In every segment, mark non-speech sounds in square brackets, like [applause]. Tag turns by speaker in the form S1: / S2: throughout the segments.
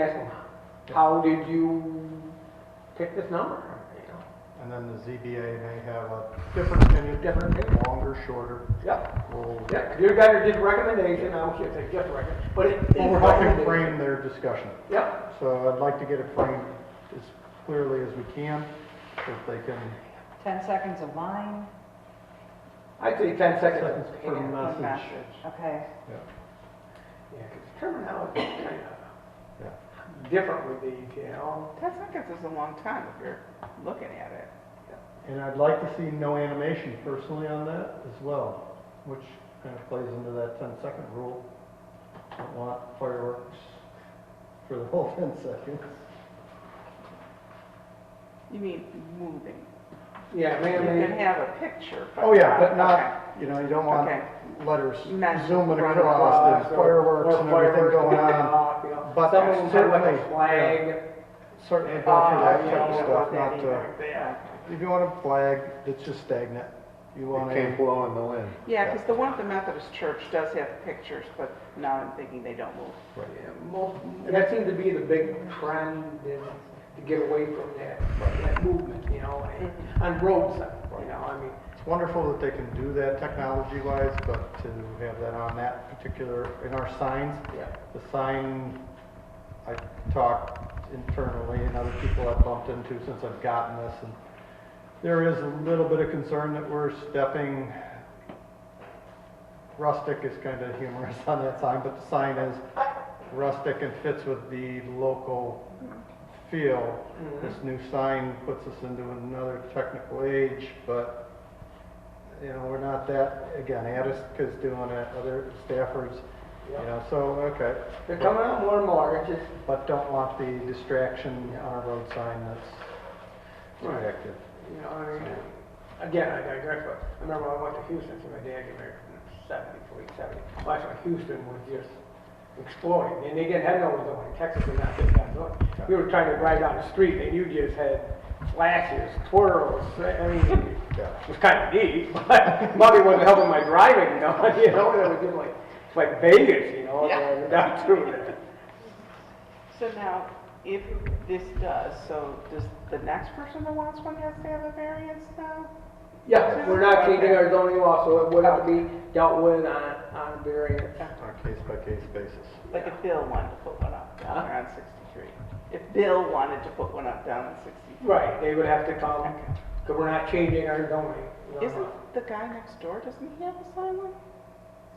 S1: guessing, how did you pick this number? You know,
S2: And then the ZBA may have a different opinion,
S1: Different opinion.
S2: longer, shorter.
S1: Yep,
S2: We'll-
S1: yep, your guys are just recommendation, I should say just recommend, but it is.
S2: Well, we're helping
S1: recommendation.
S2: frame their discussion.
S1: Yep,
S2: So I'd like to get it framed as clearly as we can, so if they can,
S3: 10 seconds of mine,
S1: I'd say ten seconds.
S2: Seconds
S1: Yeah,
S2: per
S1: yeah,
S2: month.
S3: one
S2: Message.
S3: message, okay.
S1: 'cause terminology is kind
S2: Yeah.
S1: of different with these, you know?
S4: 10 seconds is a long time if you're looking at it.
S2: and I'd like to see no animation personally on that as well, which kind of plays into that 10-second rule. Don't want fireworks for the whole [laughs] 10 seconds.
S4: You mean moving.
S1: Yeah,
S4: You
S1: man,
S4: can
S1: man,
S4: have a picture. but
S2: Oh, yeah, but
S4: okay.
S2: not, you know, you don't want
S4: Okay.
S2: letters
S4: Magic
S2: zooming
S4: running uh,
S1: across,
S2: across, and
S1: or-
S2: fireworks
S1: or
S2: and everything
S1: fireworks
S2: going
S1: going
S4: [laughs]
S2: on.
S1: off, you know.
S2: But
S1: Some of them have like
S2: certainly,
S1: a flag.
S2: Certainly go
S4: Oh,
S2: for that type
S4: yeah, you
S2: of
S4: don't
S2: stuff,
S4: want that
S2: not,
S4: either.
S2: uh, if you want a flag that's just stagnant, you want
S5: It came
S2: a,
S5: blowing the wind.
S4: Yeah, because the one at the Methodist Church does have pictures, but now I'm thinking they don't move.
S1: Yeah, most- That seems to be the big trend is to get away from that, that movement, you know, and- on roads, you know, I mean,
S2: it's wonderful that they can do that technology-wise, but to have that on that particular, in our signs,
S1: yeah.
S2: the sign, I talked internally and other people I've bumped into since I've gotten this, and there is a little bit of concern that we're stepping, rustic is kind of humorous [laughs] on that sign, but the sign is rustic and fits with the local feel. This new sign puts us into another technical age, but, you know, we're not that, again, Attica's doing it, other Stafford's, you
S1: Yeah.
S2: know, so, okay.
S1: They're coming out more and more, it's just,
S2: But don't want the distraction on a road sign that's too
S1: Right.
S2: active.
S1: you know, I mean, again, I digress, but I remember when I went to Houston, see my dad get married in seventy-three, seventy. That's when Houston was just exploding, and they didn't have no zoning, Texas did not get that zoning. We were trying to drive down the street, and you just had flashes, twirls, I mean,
S2: Yeah.
S1: It was kind of neat, [laughs] but Mother wasn't helping my driving, you know, [laughs] you know, it was just like, it's like Vegas, you know,
S4: Yeah.
S1: down through there.
S4: So now, if this does, so does the next person that wants one has to have a variance now?
S1: Yeah, we're not changing our zoning law, so it would have to be dealt with on, on variance.
S2: On a case-by-case basis.
S4: Like if Bill wanted to put one up down there on 63. If Bill wanted to put one up down on 63.
S1: Right, they would have to come, because we're not changing our zoning. law.
S4: Isn't the guy next door, doesn't he have a sign like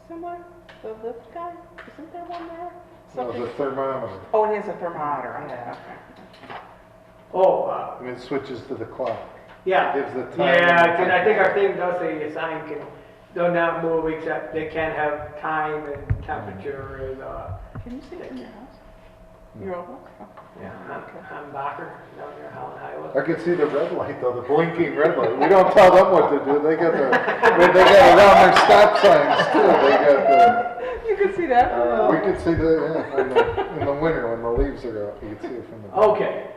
S4: similar? The lift guy, isn't there one there?
S5: That was
S4: Something-
S5: a thermometer.
S4: Oh, it has a thermometer on it,
S3: Yeah.
S4: okay.
S1: Oh, uh,
S5: And it switches to the clock.
S1: yeah.
S5: Gives the time.
S1: Yeah, and I think our thing does say a sign can, though not move except they can have time and temperature and, uh,
S4: Can you see it in your house? Your old one?
S1: yeah, I'm, I'm Bacher, down near Holland Highway.
S5: I could see the red light though, the blinking red light. We don't tell them what to do. They got the, they got it on their stop signs too. They got the,
S4: [laughs] You can see that?
S2: Uh,
S5: we could see the, yeah, in the, in the winter when the leaves are out, you could see it from the.
S2: Oh.
S1: Okay,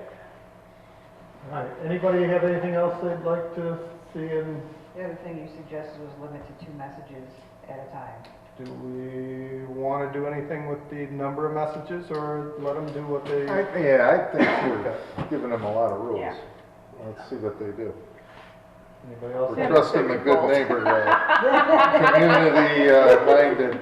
S2: All right, anybody have anything else they'd like to see and
S3: The other thing you suggested was limit to two messages at a time.
S2: do we want to do anything with the number of messages or let them do what they?
S5: I, yeah, I think we're giving them a lot of rules. Let's see what they do.
S2: Anybody else?
S5: We're
S4: Yeah.
S5: trusting the good neighbor, uh, community uh, minded.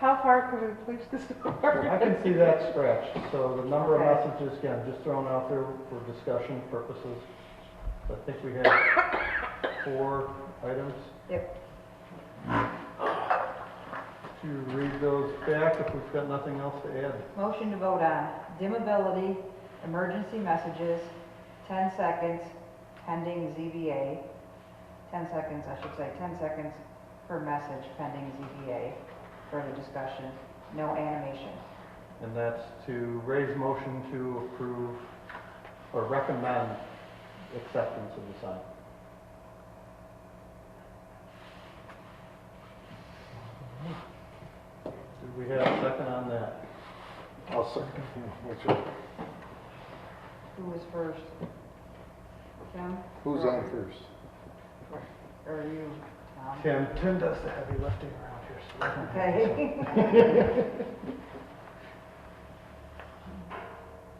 S4: How far can we push this door?
S2: I can see that scratched, so the number of
S4: Okay.
S2: messages, again, just thrown out there for discussion purposes. I think we have four items.
S3: Yep.
S2: To read those back if we've got nothing else to add.
S3: Motion to vote on dimmability, emergency messages, 10 seconds pending ZBA, 10 seconds, I should say, 10 seconds per message pending ZBA, further discussion, no animation.
S2: And that's to raise motion to approve or recommend acceptance of the sign. Do we have a second on that?
S5: I'll second, which is,
S3: Who was first? Tim?
S5: who's on first?
S3: Or you, Tom? [laughs]
S2: Tim, Tim does the heavy lifting around here, so.
S3: Okay.